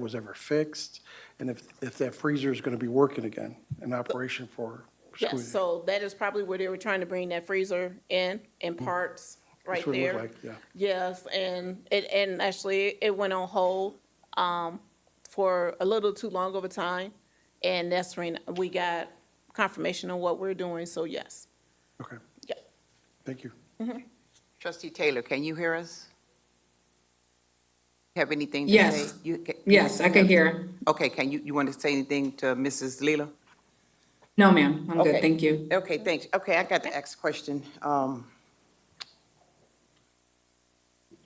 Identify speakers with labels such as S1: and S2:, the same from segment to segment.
S1: was ever fixed, and if, if that freezer is going to be working again, in operation for school
S2: Yes,
S1: year.
S2: so that is probably where they were trying to bring that freezer in, in parts, right
S1: That's what it looked
S2: there.
S1: like, Yeah,
S2: Yes, and it, and actually, it went on hold, um, for a little too long of a time. And that's when we got confirmation on what we're doing, so yes.
S1: okay.
S2: Yeah.
S1: Thank you.
S3: Trustee Taylor, can you hear us? Have anything to say?
S4: Yes.
S3: You ca-
S4: Yes, I can hear.
S3: Okay, can you, you want to say anything to Mrs. Leela?
S4: No, ma'am, I'm good,
S3: Okay.
S4: thank you.
S3: Okay, thanks. Okay, I got the next question. Um,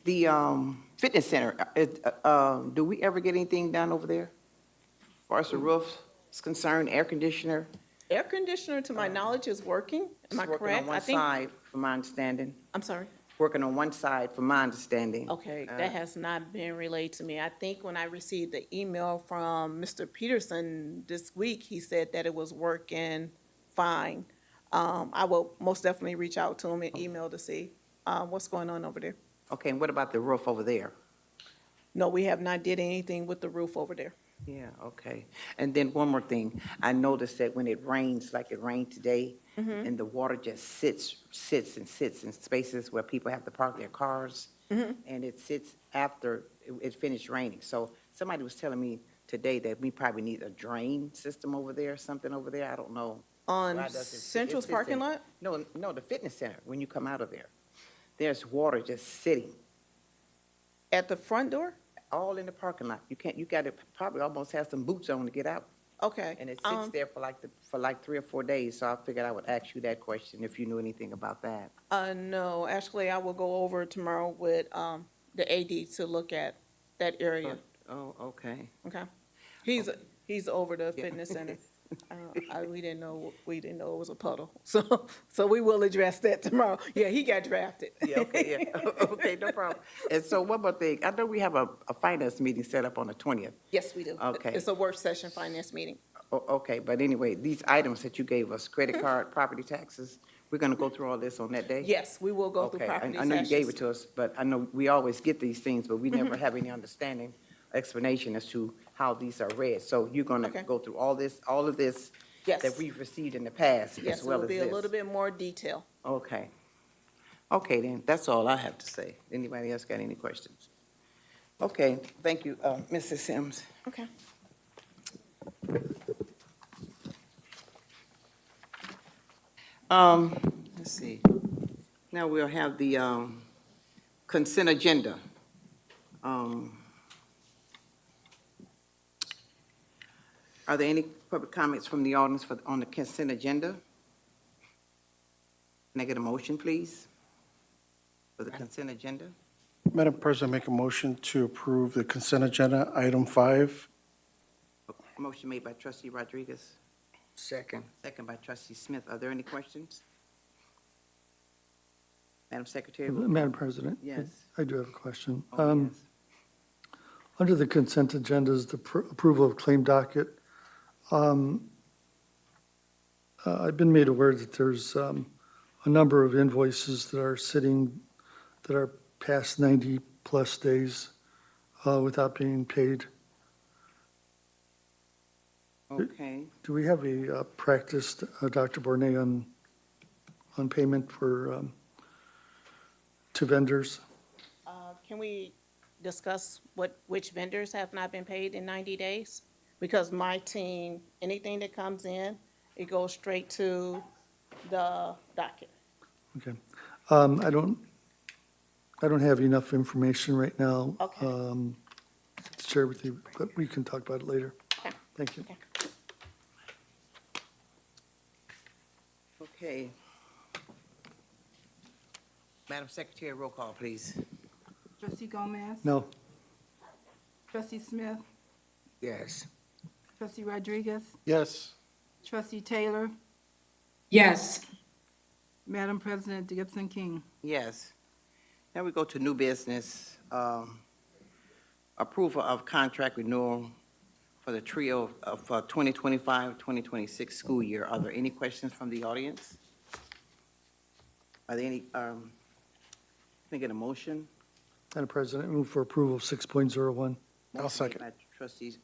S3: The um, fitness center, uh, it, uh, uh, do we ever get anything done over there? As far as the roof is concerned, air conditioner?
S2: Air conditioner, to my knowledge, is working, am I
S3: It's Working on
S2: correct? I
S3: one
S2: think.
S3: side, from my understanding.
S2: I'm sorry.
S3: Working on one side, from my understanding.
S2: Okay,
S3: Uh,
S2: that has not been relayed to me. I think when I received the email from Mr. Peterson this week, he said that it was working fine. Um, I will most definitely reach out to him and email to see, uh, what's going on over there.
S3: Okay, and what about the roof over there?
S2: No, we have not did anything with the roof over there.
S3: Yeah, okay. And then one more thing. I noticed that when it rains, like it rained today,
S2: Mm-hmm.
S3: and the water just sits, sits and sits in spaces where people have to park their cars.
S2: Mm-hmm.
S3: And it sits after it- it finished raining. So somebody was telling me today that we probably need a drain system over there, something over there. I don't know.
S2: On
S3: Why does it sit- it
S2: Central's
S3: sits in-
S2: parking lot?
S3: No, no, the fitness center, when you come out of there. There's water just sitting
S2: At the front door?
S3: all in the parking lot. You can't, you gotta probably almost have some boots on to get out.
S2: Okay.
S3: And it sits
S2: Um,
S3: there for like, the for like three or four days, so I figured I would ask you that question if you knew anything about that.
S2: Uh, no, actually, I will go over tomorrow with, um, the AD to look at that area.
S3: Oh, okay.
S2: Okay. He's, he's over the
S3: Yeah.
S2: fitness center. Uh, I, we didn't know, we didn't know it was a puddle. So, so we will address that tomorrow. Yeah, he got drafted.
S3: Yeah, okay, yeah, okay, no problem. And so one more thing, I know we have a, a finance meeting set up on the twentieth.
S2: Yes, we do.
S3: Okay.
S2: It's a work session finance meeting.
S3: O- okay, but anyway, these items that you gave us, credit
S2: Mm-hmm.
S3: card, property taxes, we're gonna go through all this on that day?
S2: Yes, we will go through
S3: Okay, I,
S2: property
S3: I know you gave
S2: taxes.
S3: it to us, but I know we always get these things, but we
S2: Mm-hmm.
S3: never have any understanding, explanation as to how these are read. So you're gonna
S2: Okay.
S3: go through all this, all of this
S2: Yes.
S3: that we've received in the past,
S2: Yes,
S3: as
S2: it
S3: well
S2: will
S3: as
S2: be a little
S3: this.
S2: bit more detail.
S3: Okay. Okay, then, that's all I have to say. Anybody else got any questions? Okay, thank you, uh, Mrs. Sims.
S2: Okay.
S3: Um, let's see. Now we'll have the, um, consent agenda. Um, Are there any public comments from the audience for, on the consent agenda? Can I get a motion, please? For the consent agenda?
S1: Madam President, make a motion to approve the consent agenda, item five.
S3: Motion made by trustee Rodriguez. Second. Second by trustee Smith. Are there any questions? Madam Secretary?
S5: Madam President? I-
S3: Yes.
S5: I do have a question.
S3: Oh,
S5: Um,
S3: yes.
S5: Under the consent agendas, the pr- approval of claim docket, um, uh, I've been made aware that there's um, a number of invoices that are sitting, that are past 90-plus days uh, without being paid.
S3: Okay.
S5: Do we have a uh, practice, uh, Dr. Bornay, on, on payment for, um, to vendors?
S2: Uh, Can we discuss what, which vendors have not been paid in 90 days? Because my team, anything that comes in, it goes straight to the docket.
S5: Okay. Um, I don't, I don't have enough information right now.
S2: Okay.
S5: um, To share with you, but we can talk about it later.
S2: Okay.
S5: Thank you.
S2: Okay.
S3: Okay. Madam Secretary, roll call, please.
S6: Trustee Gomez?
S5: No,
S6: Trustee Smith?
S3: Yes.
S6: Trustee Rodriguez?
S1: Yes.
S6: Trustee Taylor?
S4: Yes.
S6: Madam President Gibson King?
S3: Yes. Now we go to new business. um, Approval of contract renewal for the trio of uh, 2025, 2026 school year. Are there any questions from the audience? Are there any, um, can I get a motion?
S5: Madam President, move for approval of 6.01.
S1: I'll
S3: Motion made
S1: second.
S3: by Trustees